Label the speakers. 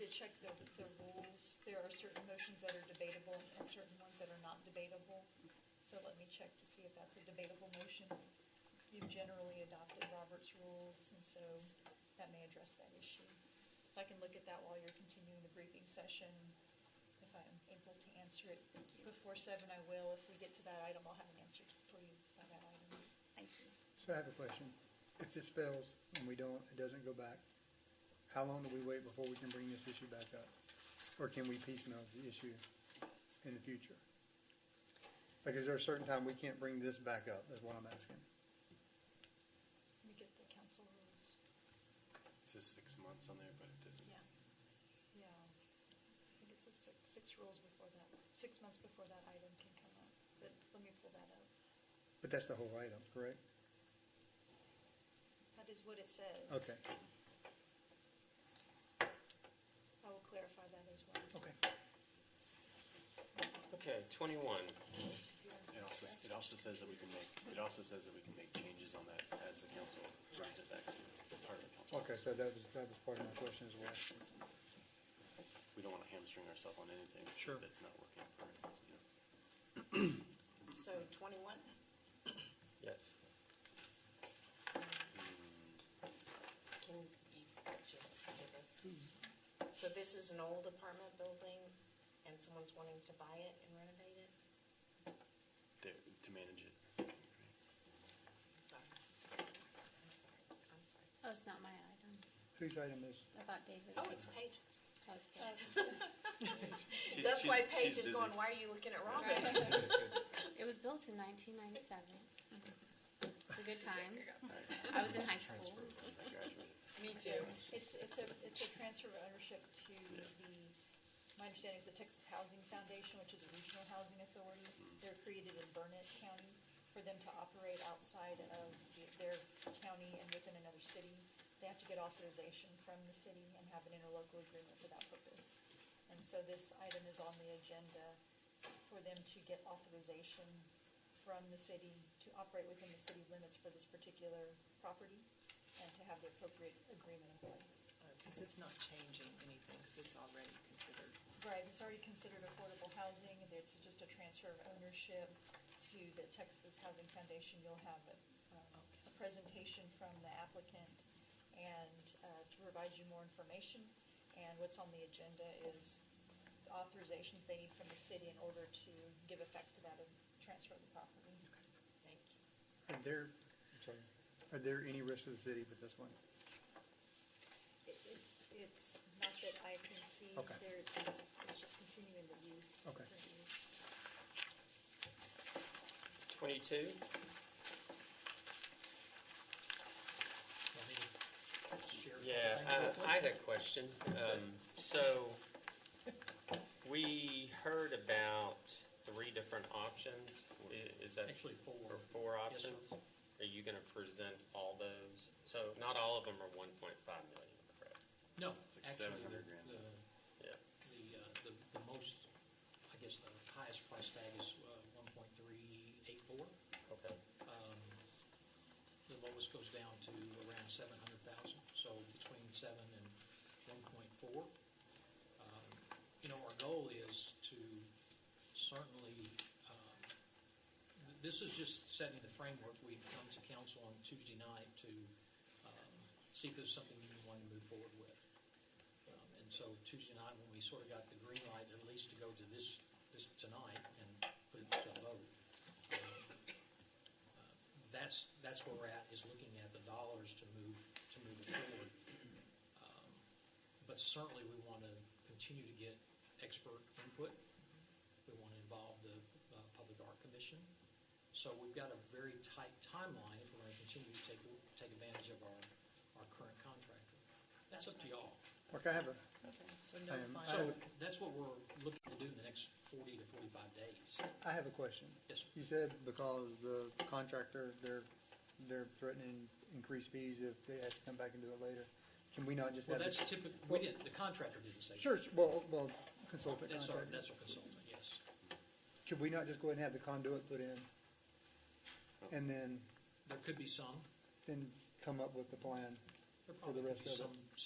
Speaker 1: to check the, the rules. There are certain motions that are debatable and certain ones that are not debatable. So let me check to see if that's a debatable motion. You've generally adopted Robert's rules, and so that may address that issue. So I can look at that while you're continuing the briefing session. If I'm able to answer it before seven, I will. If we get to that item, I'll have an answer for you by that item.
Speaker 2: Thank you.
Speaker 3: So I have a question. If this fails and we don't, it doesn't go back, how long do we wait before we can bring this issue back up? Or can we piecemeal the issue in the future? Like, is there a certain time we can't bring this back up, is what I'm asking?
Speaker 1: Let me get the council rules.
Speaker 4: It says six months on there, but it doesn't.
Speaker 1: Yeah, yeah. I think it's a six, six rules before that, six months before that item can come up, but let me pull that up.
Speaker 3: But that's the whole item, correct?
Speaker 1: That is what it says.
Speaker 3: Okay,
Speaker 1: I will clarify that as well.
Speaker 3: okay.
Speaker 5: Okay, twenty-one.
Speaker 4: It also, it also says that we can make, it also says that we can make changes on that as the council brings it back to part of the council.
Speaker 3: Okay, so that was, that was part of my question as well.
Speaker 4: We don't want to hamstring ourselves on anything.
Speaker 3: Sure.
Speaker 4: That's not working for us, you know.
Speaker 2: So twenty-one,
Speaker 5: Yes.
Speaker 4: Mm,
Speaker 2: can you just give us? So this is an old apartment building and someone's wanting to buy it and renovate it?
Speaker 4: To, to manage it.
Speaker 2: Sorry. I'm sorry, I'm sorry.
Speaker 6: Oh, it's not my item,
Speaker 3: Whose item is,
Speaker 6: about David's.
Speaker 2: Oh, it's Paige.
Speaker 6: husband.
Speaker 4: She's-
Speaker 2: That's
Speaker 4: she's-
Speaker 2: why Paige
Speaker 4: she's
Speaker 2: is
Speaker 4: busy.
Speaker 2: going, why are you looking at Robin?
Speaker 6: Right. It was built in nineteen ninety-seven. It's a good time. I was in high school.
Speaker 4: I graduated.
Speaker 2: Me too.
Speaker 1: It's, it's a, it's a transfer of ownership to the, my understanding is the Texas Housing Foundation, which is a regional housing authority. They're created in Burnett County for them to operate outside of the- their county and within another city. They have to get authorization from the city and have an interlocal agreement for that purpose. And so this item is on the agenda for them to get authorization from the city to operate within the city limits for this particular property and to have the appropriate agreement in place.
Speaker 7: Because Uh, it's not changing anything, because it's already considered.
Speaker 1: Right, it's already considered affordable housing, and it's just a transfer of ownership to the Texas Housing Foundation. You'll have a, um, a presentation from the applicant and uh, to provide you more information. And what's on the agenda is authorizations they need from the city in order to give effect to that and transfer of the property.
Speaker 2: Thank you.
Speaker 3: are there, I'm sorry, are there any risks to the city with this one?
Speaker 1: It- It's, it's not that I can see,
Speaker 3: Okay.
Speaker 1: there, it's just continuing the use.
Speaker 3: Okay.
Speaker 1: the use.
Speaker 5: Twenty-two. Yeah, uh, I had a question. Um, So, we heard about three different options. I- Is that?
Speaker 8: Actually, four.
Speaker 5: Or four
Speaker 8: Yes, sir.
Speaker 5: options? Are you gonna present all those? So, not all of them are one point five million, correct?
Speaker 8: No,
Speaker 4: It's like
Speaker 8: actually,
Speaker 4: 700 grand.
Speaker 8: the,
Speaker 5: Yeah.
Speaker 8: the, uh, the, the most, I guess, the highest price tag is uh, one point three eight four.
Speaker 5: Okay.
Speaker 8: um, The lowest goes down to around seven hundred thousand, so between seven and one point four. Um, You know, our goal is to certainly, um, th- this is just setting the framework. We come to council on Tuesday night to um, see if there's something we want to move forward with. Um, And so Tuesday night, when we sort of got the green light, at least to go to this, this tonight and put it to a vote. um, uh, That's, that's where we're at, is looking at the dollars to move, to move it forward. Um, But certainly, we want to continue to get expert input. We want to involve the uh, Public Art Commission. So we've got a very tight timeline if we're going to continue to take, take advantage of our, our current contractor. That's up to y'all.
Speaker 3: Like, I have a,
Speaker 7: So no
Speaker 3: Um,
Speaker 7: final,
Speaker 8: So that's what we're looking to do in the next 40 to 45 days.
Speaker 3: I have a question.
Speaker 8: Yes, sir.
Speaker 3: You said because the contractor, they're, they're threatening increased fees if they have to come back and do it later. Can we not just
Speaker 8: Well,
Speaker 3: have? it-
Speaker 8: that's typical, we didn't, the contractor didn't say. that.
Speaker 3: Sure, sure, well, well, consultant
Speaker 8: That's our,
Speaker 3: contractor.
Speaker 8: that's our consultant, yes.
Speaker 3: Could we not just go ahead and have the conduit put in? And then,
Speaker 8: There could be some,
Speaker 3: then come up with the plan?
Speaker 8: there
Speaker 3: For the
Speaker 8: probably could
Speaker 3: rest
Speaker 8: be
Speaker 3: of it.
Speaker 8: some